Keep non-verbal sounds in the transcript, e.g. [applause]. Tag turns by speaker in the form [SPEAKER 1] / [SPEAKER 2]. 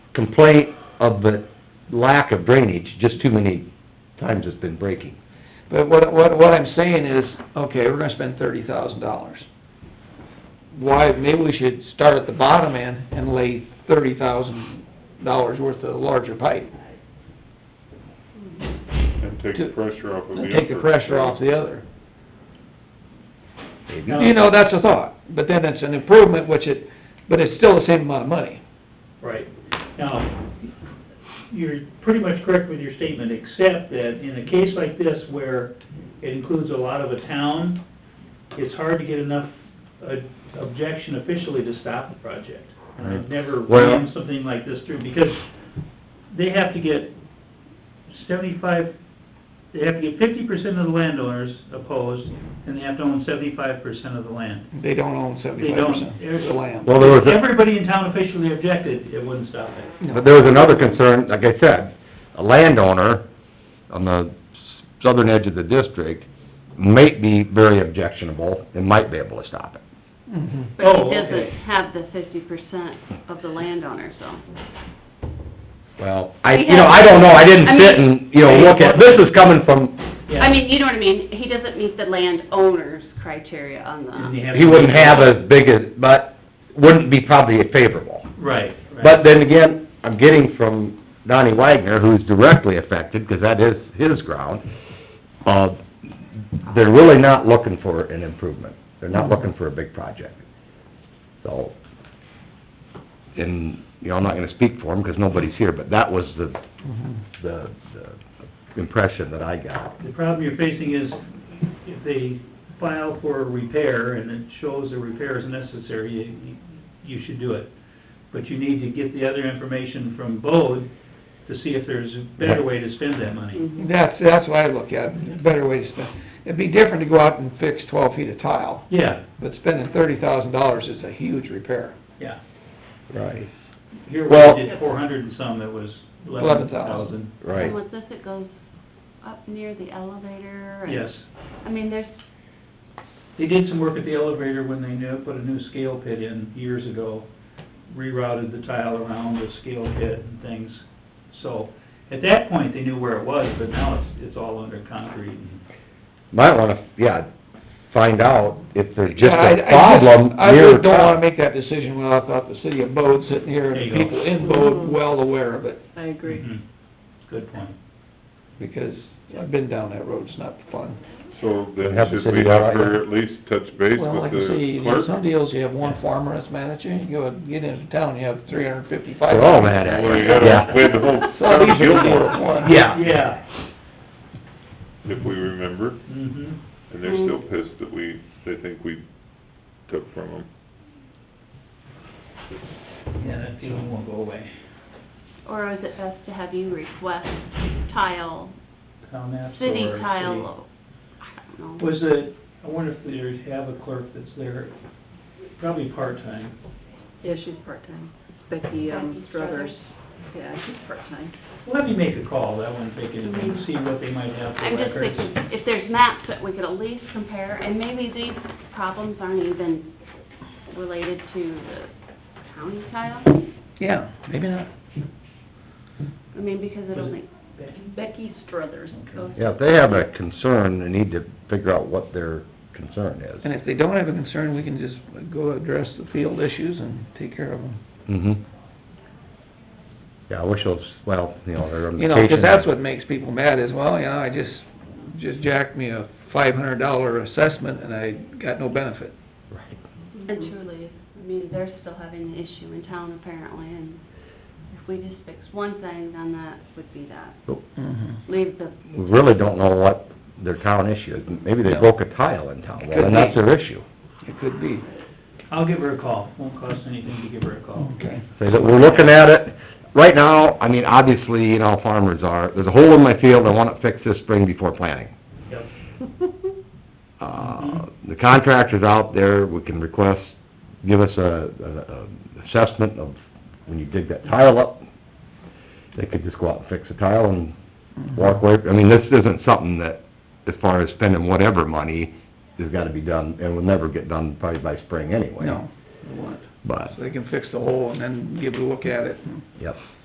[SPEAKER 1] complaint of the lack of drainage, just too many times it's been breaking.
[SPEAKER 2] But what, what, what I'm saying is, okay, we're gonna spend thirty thousand dollars. Why, maybe we should start at the bottom end and lay thirty thousand dollars worth of larger pipe.
[SPEAKER 3] And take the pressure off of the
[SPEAKER 2] And
[SPEAKER 3] upper.
[SPEAKER 2] take the pressure off the other.
[SPEAKER 1] Maybe.
[SPEAKER 2] You know, that's a thought, but then it's an improvement, which it, but it's still the same amount of money.
[SPEAKER 4] Right. Now, you're pretty much correct with your statement, except that in a case like this where it includes a lot of a town, it's hard to get enough uh, objection officially to stop the project. And I've never
[SPEAKER 1] Well-
[SPEAKER 4] ran something like this through, because they have to get seventy-five, they have to get fifty percent of the landowners opposed, and they have to own seventy-five percent of the land.
[SPEAKER 2] They don't own
[SPEAKER 4] They
[SPEAKER 2] seventy-five
[SPEAKER 4] don't,
[SPEAKER 2] percent. There's the land.
[SPEAKER 1] Well, there was, a-
[SPEAKER 4] everybody in town officially objected, it wouldn't stop it.
[SPEAKER 1] but there was another concern, like I said, a landowner on the southern edge of the district may be very objectionable and might be able to stop it.
[SPEAKER 2] Mhm.
[SPEAKER 5] But
[SPEAKER 4] Oh, okay.
[SPEAKER 5] he doesn't have the fifty percent of the landowner, so.
[SPEAKER 1] Well, I,
[SPEAKER 5] We
[SPEAKER 1] you know,
[SPEAKER 5] have-
[SPEAKER 1] I don't know, I
[SPEAKER 5] I
[SPEAKER 1] didn't sit
[SPEAKER 5] mean-
[SPEAKER 1] and, you know, look at, this is coming from,
[SPEAKER 4] Yeah.
[SPEAKER 5] I mean, you know what I mean, he doesn't meet the landowner's criteria on
[SPEAKER 4] And you
[SPEAKER 5] the,
[SPEAKER 4] have-
[SPEAKER 1] he wouldn't have as big as, but wouldn't be probably favorable.
[SPEAKER 4] Right, right.
[SPEAKER 1] But then again, I'm getting from Donnie Wagner, who's directly affected, because that is his ground, uh, they're really not looking for an improvement. They're not looking for a big project. So, and, you know, I'm not gonna speak for him, because nobody's here, but that was the,
[SPEAKER 2] Mhm.
[SPEAKER 1] the, the impression that I got.
[SPEAKER 4] The problem you're facing is if they file for a repair and it shows the repair is necessary, you, you should do it. But you need to get the other information from Bode to see if there's a better way to spend that money.
[SPEAKER 5] mm-hmm.
[SPEAKER 2] That's, that's what I look at, a better way to spend. It'd be different to go out and fix twelve feet of tile,
[SPEAKER 4] Yeah,
[SPEAKER 2] but spending thirty thousand dollars is a huge repair.
[SPEAKER 4] yeah.
[SPEAKER 1] Right.
[SPEAKER 4] Here
[SPEAKER 1] Well-
[SPEAKER 4] we did four hundred and some, it was eleven thousand.
[SPEAKER 1] Right.
[SPEAKER 5] and with this, it goes up near the elevator and.
[SPEAKER 4] Yes.
[SPEAKER 5] I mean, there's,
[SPEAKER 4] They did some work at the elevator when they knew, put a new scale pit in years ago, rerouted the tile around the scale pit and things. So, at that point, they knew where it was, but now it's, it's all under concrete and
[SPEAKER 1] Might wanna, yeah, find out if there's just
[SPEAKER 2] Yeah, I- I
[SPEAKER 1] a problem
[SPEAKER 2] I
[SPEAKER 1] near
[SPEAKER 2] really don't
[SPEAKER 1] town.
[SPEAKER 2] wanna make that decision without, without the city of Bode sitting here and
[SPEAKER 4] There you
[SPEAKER 2] the
[SPEAKER 4] go.
[SPEAKER 2] people in Bode well aware of it,
[SPEAKER 6] I agree.
[SPEAKER 4] Mhm. Good point.
[SPEAKER 2] because I've been down that road, it's not fun.
[SPEAKER 3] So then
[SPEAKER 1] Have the
[SPEAKER 3] should we
[SPEAKER 1] city
[SPEAKER 3] have
[SPEAKER 1] write
[SPEAKER 3] her at least touch base
[SPEAKER 2] Well,
[SPEAKER 3] with
[SPEAKER 2] like I say,
[SPEAKER 3] the
[SPEAKER 2] you know, some
[SPEAKER 3] clerk?
[SPEAKER 2] deals, you have one farmer that's managing, you go and get into town, you have three hundred and fifty-five.
[SPEAKER 1] They're all mad at
[SPEAKER 3] Well, you
[SPEAKER 1] you,
[SPEAKER 3] gotta,
[SPEAKER 1] yeah.
[SPEAKER 3] we had the whole
[SPEAKER 2] [laughs] So these
[SPEAKER 3] town
[SPEAKER 2] are
[SPEAKER 3] guild
[SPEAKER 2] four
[SPEAKER 3] work,
[SPEAKER 2] of one.
[SPEAKER 1] Yeah.
[SPEAKER 4] Yeah.
[SPEAKER 3] if we remember,
[SPEAKER 4] Mm-hmm.
[SPEAKER 3] and
[SPEAKER 2] Mm.
[SPEAKER 3] they're still pissed that we, they think we took from them.
[SPEAKER 4] Yeah, that feeling won't go away.
[SPEAKER 5] or is it best to have you request tile,
[SPEAKER 4] Town apps or
[SPEAKER 5] city tile? I don't know.
[SPEAKER 4] Was it, I wonder if they have a clerk that's there, probably part-time.
[SPEAKER 6] Yeah, she's part-time. Becky, um,
[SPEAKER 5] Becky Struthers.
[SPEAKER 6] Struthers. Yeah, she's part-time.
[SPEAKER 4] Let me make a call, that wouldn't take anything, see what they might have for
[SPEAKER 5] Mm-hmm. I'm just
[SPEAKER 4] records.
[SPEAKER 5] thinking, if there's maps that we could at least compare, and maybe these problems aren't even related to the county tile,
[SPEAKER 2] Yeah, maybe not.
[SPEAKER 5] I mean, because
[SPEAKER 4] Was
[SPEAKER 5] it
[SPEAKER 4] it-
[SPEAKER 5] only
[SPEAKER 4] Becky?
[SPEAKER 6] Becky Struthers.
[SPEAKER 4] Okay.
[SPEAKER 1] Yeah, if they have a concern, they need to figure out what their concern is.
[SPEAKER 2] And if they don't have a concern, we can just go address the field issues and take care of them.
[SPEAKER 1] Mm-hmm. Yeah, I wish those, well, you know, their
[SPEAKER 2] You know,
[SPEAKER 1] indication.
[SPEAKER 2] because that's what makes people mad is, well, you know, I just, just jacked me a five hundred dollar assessment and I got no benefit.
[SPEAKER 1] Right.
[SPEAKER 5] And truly, I mean, they're still having an issue in town apparently, and if we just fix one thing, then that would be that.
[SPEAKER 1] Mm-hmm.
[SPEAKER 5] Leave the,
[SPEAKER 1] We really don't know what their town issue is. Maybe they
[SPEAKER 2] No.
[SPEAKER 1] broke a tile in town, well, then that's their issue.
[SPEAKER 2] It could be.
[SPEAKER 4] I'll give her a call, won't cost anything to give her a call.
[SPEAKER 2] Okay.
[SPEAKER 1] Say that we're looking at it, right now, I mean, obviously, you know, farmers are, there's a hole in my field, I want it fixed this spring before planting.
[SPEAKER 4] Yep.
[SPEAKER 1] Uh,
[SPEAKER 4] Mhm.
[SPEAKER 1] the contractor's out there, we can request, give us a, a, a assessment of when you dig that tile up. They could just go out and fix the tile and
[SPEAKER 2] Mm-hmm.
[SPEAKER 1] walk away. I mean, this isn't something that, as far as spending whatever money, has gotta be done, and will never get done probably by spring anyway.
[SPEAKER 2] No, it won't.
[SPEAKER 1] But,
[SPEAKER 2] So they can fix the hole and then give a look at it and
[SPEAKER 1] yes.